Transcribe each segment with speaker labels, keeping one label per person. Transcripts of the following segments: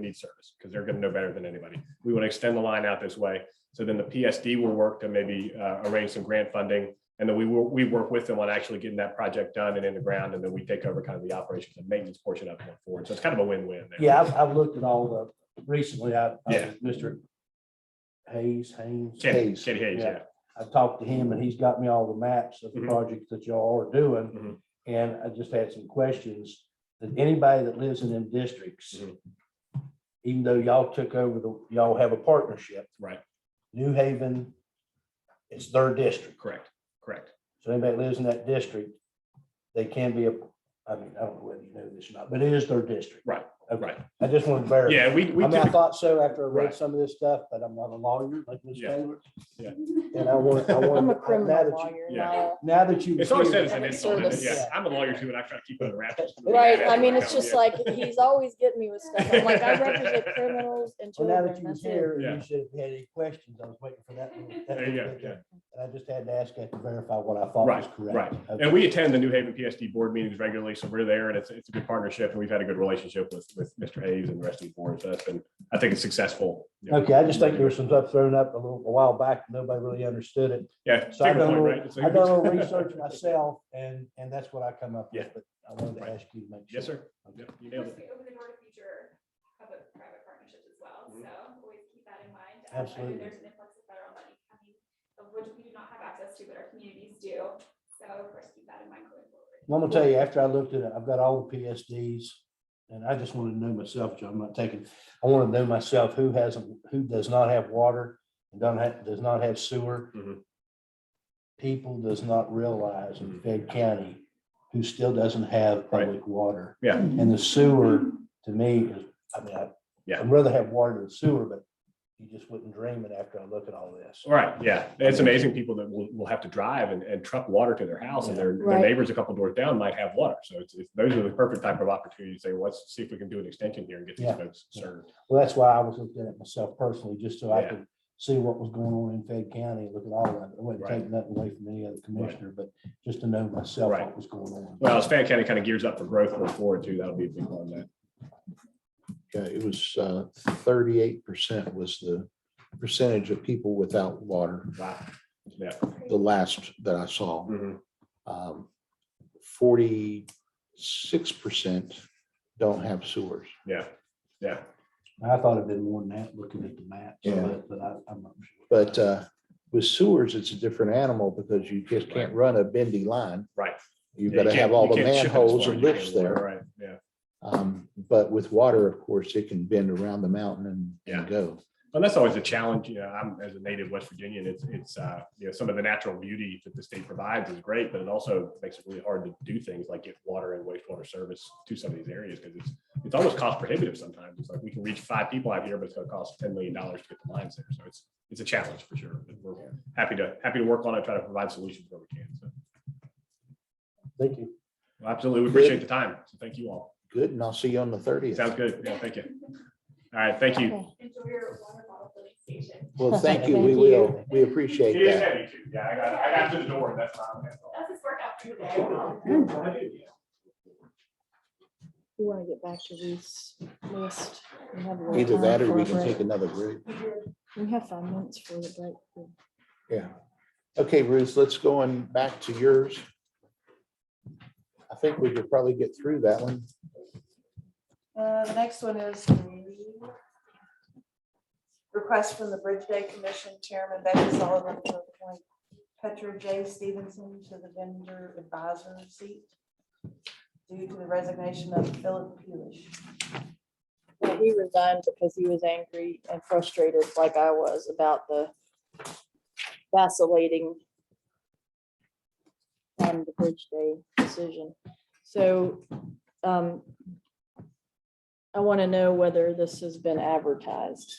Speaker 1: need service because they're going to know better than anybody. We want to extend the line out this way. So then the PSD will work to maybe uh, arrange some grant funding. And then we will, we work with them on actually getting that project done and in the ground. And then we take over kind of the operations and maintenance portion of it going forward. So it's kind of a win-win. there.
Speaker 2: Yeah, I've, I've looked at all the, recently, I,
Speaker 1: Yeah.
Speaker 2: I- Mr. Hayes, Haynes.
Speaker 1: Katie
Speaker 2: Hayes.
Speaker 1: Katie Hayes, yeah.
Speaker 2: I've talked to him and he's got me all the maps of the
Speaker 1: Mhm.
Speaker 2: projects that y'all are doing.
Speaker 1: Mhm.
Speaker 2: And I just had some questions. That anybody that lives in them districts,
Speaker 1: Mhm.
Speaker 2: even though y'all took over the, y'all have a partnership.
Speaker 1: Right.
Speaker 2: New Haven, it's their district.
Speaker 1: Correct, correct.
Speaker 2: So anybody that lives in that district, they can be, a. I mean, I don't know whether you know this or not, but it is their district.
Speaker 1: Right,
Speaker 2: Okay.
Speaker 1: right.
Speaker 2: I just want to verify.
Speaker 1: Yeah, we, we
Speaker 2: I mean, I
Speaker 1: typically-
Speaker 2: thought so after I read
Speaker 1: Right.
Speaker 2: some of this stuff, but I'm not a lawyer like Ms.
Speaker 1: Yeah.
Speaker 2: Taylor.
Speaker 1: Yeah.
Speaker 2: And I want, I want.
Speaker 3: I'm a
Speaker 2: now
Speaker 3: criminal
Speaker 2: that you-
Speaker 3: lawyer,
Speaker 1: yeah.
Speaker 3: not a-
Speaker 2: Now that you.
Speaker 1: It's always said as an
Speaker 3: Public
Speaker 1: insult, isn't it?
Speaker 3: service.
Speaker 1: yeah. I'm a lawyer too, and I try to keep it under wraps.
Speaker 3: Right, I mean, it's just
Speaker 1: Yeah.
Speaker 3: like, he's always getting me with stuff. I'm like, I represent criminals and
Speaker 2: Well, now
Speaker 3: children,
Speaker 2: that you was
Speaker 3: that's it.
Speaker 2: here, and
Speaker 1: Yeah.
Speaker 2: you said if you had any questions, I was waiting for that. little- that
Speaker 1: There you
Speaker 2: little
Speaker 1: go,
Speaker 2: bit
Speaker 1: yeah.
Speaker 2: there. And I just had to ask that to verify what I thought was correct.
Speaker 1: right.
Speaker 2: Okay.
Speaker 1: And we attend the New Haven PSD board meetings regularly, so we're there, and it's, it's a good partnership, and we've had a good relationship with, with Mr. Hayes and the rest of the board, so that's been, I think it's successful. you know.
Speaker 2: Okay, I just think there was some stuff thrown up a little, a while back, nobody really understood it.
Speaker 1: Yeah.
Speaker 2: So I
Speaker 1: take a
Speaker 2: done a
Speaker 1: point,
Speaker 2: little,
Speaker 1: right? It's
Speaker 2: I
Speaker 1: like-
Speaker 2: done a little research myself, and, and that's what I come up with,
Speaker 1: Yeah.
Speaker 2: but I wanted to
Speaker 1: Right.
Speaker 2: ask you to make sure.
Speaker 1: Yes, sir. Yeah, you
Speaker 4: Of
Speaker 1: nailed
Speaker 4: course,
Speaker 1: it.
Speaker 4: we open the door to future public-private partnerships as well,
Speaker 1: Mhm.
Speaker 4: so always keep that in mind. Um, I know
Speaker 2: Absolutely.
Speaker 4: There's an influx of federal money coming, of which we do not have access to, but our communities do, so of course, keep that in mind going forward.
Speaker 2: Well, I'm gonna tell you, after I looked at it, I've got all the PSDs, and I just wanted to know myself, John, I'm not taking, I want to know myself who hasn't, who does not have water, and don't have, does not have sewer.
Speaker 1: Mhm.
Speaker 2: People does not realize in Fayette County who still doesn't have
Speaker 1: Mm-hmm. Right.
Speaker 2: public water.
Speaker 1: Yeah.
Speaker 2: And the sewer, to me, is, I mean, I-
Speaker 1: Yeah.
Speaker 2: I'd rather have water than sewer, but you just wouldn't dream it after I look at all this.
Speaker 1: All Right, yeah. It's amazing people that will, will have to drive and, and truck water to their house, and their, their
Speaker 3: Right.
Speaker 1: neighbors a couple doors down might have water, so it's, it's, those are the perfect type of opportunity to say, well, let's see if we can do an extension here and get these
Speaker 2: Yeah.
Speaker 1: folks served.
Speaker 2: Well, that's why I was looking at it myself personally, just so I
Speaker 1: Yeah.
Speaker 2: could see what was going on in Fayette County, look at all of it. I wouldn't
Speaker 1: Right.
Speaker 2: take nothing away from any other commissioner, but just to know myself
Speaker 1: Right.
Speaker 2: what was going on.
Speaker 1: Well, as Fan County kind of gears up for growth going forward too, that'll be a big one, that,
Speaker 5: Yeah, it was uh, thirty-eight percent was the percentage of people without water,
Speaker 1: wow, yeah.
Speaker 5: the last that I saw. Um,
Speaker 1: Mhm.
Speaker 5: Forty-six percent don't have sewers.
Speaker 1: Yeah, yeah,
Speaker 2: I thought it'd been more than that, looking at the map,
Speaker 5: Yeah.
Speaker 2: but but I, I'm not sure.
Speaker 5: But uh, with sewers, it's a different animal because you just can't run a bendy line.
Speaker 1: right.
Speaker 5: You've
Speaker 1: Yeah,
Speaker 5: got
Speaker 1: you
Speaker 5: to
Speaker 1: can't-
Speaker 5: have all
Speaker 1: you
Speaker 5: the
Speaker 1: can't ship it as
Speaker 5: manholes
Speaker 1: far
Speaker 5: and
Speaker 1: as you
Speaker 5: lifts
Speaker 1: can,
Speaker 5: there.
Speaker 1: Right, yeah.
Speaker 5: Um, But with water, of course, it can bend around the mountain and-
Speaker 1: Yeah.
Speaker 5: and go.
Speaker 1: And that's always a challenge, you know, I'm as a native West Virginian, it's, it's, uh, you know, some of the natural beauty that the state provides is great, but it also makes it really hard to do things like get water and wastewater service to some of these areas, because it's, it's almost cost prohibitive sometimes. It's like, we can reach five people out here, but it's gonna cost ten million dollars to get the lines there, so it's, it's a challenge for sure. But We're happy to, happy to work on it, try to provide solutions where we can, so.
Speaker 2: Thank you.
Speaker 1: Well, Absolutely, we appreciate the time, so thank you all.
Speaker 5: Good, and I'll see you on the thirtieth.
Speaker 1: Sounds good, yeah, thank you. All right, thank you.
Speaker 4: Enjoy your water bottle filling station.
Speaker 5: Well, thank you. We
Speaker 3: Thank you.
Speaker 5: will. We appreciate
Speaker 1: It is
Speaker 5: that.
Speaker 1: heavy too. Yeah, I got, I got to the door. That's not. that's all.
Speaker 4: That's his workout for today.
Speaker 3: We want to get back to Ruth's list. We have a little
Speaker 5: Either
Speaker 3: time
Speaker 5: that or
Speaker 3: for
Speaker 5: we
Speaker 3: a
Speaker 5: can
Speaker 3: break.
Speaker 5: take another group.
Speaker 3: We have five minutes for the break.
Speaker 5: Yeah. Okay, Ruth, let's go on back to yours. I think we could probably get through that one.
Speaker 6: Uh, the next one is the request from the Bridge Day Commission Chairman Becky Sullivan to appoint Petra J. Stevenson to the vendor advisor seat due to the resignation of Philip Pulish.
Speaker 3: Well, He resigned because he was angry and frustrated like I was about the vacillating on the Bridge Day decision. So um, I want to know whether this has been advertised.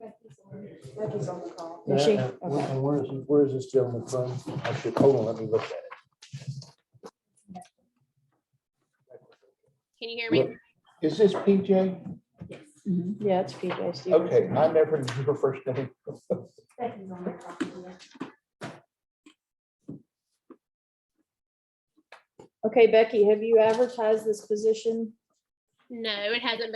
Speaker 6: Becky's on the call.
Speaker 3: Is she?
Speaker 2: And- and where-
Speaker 3: Okay.
Speaker 2: and where is, where is this gentleman from? I should, hold on, let me look at it.
Speaker 7: Can you hear me?
Speaker 5: Is this PJ?
Speaker 3: Yeah, it's PJ Stevens.
Speaker 5: Okay, I never knew her first name.
Speaker 4: Becky's on the call.
Speaker 3: Okay, Becky, have you advertised this position?
Speaker 7: No, it hasn't been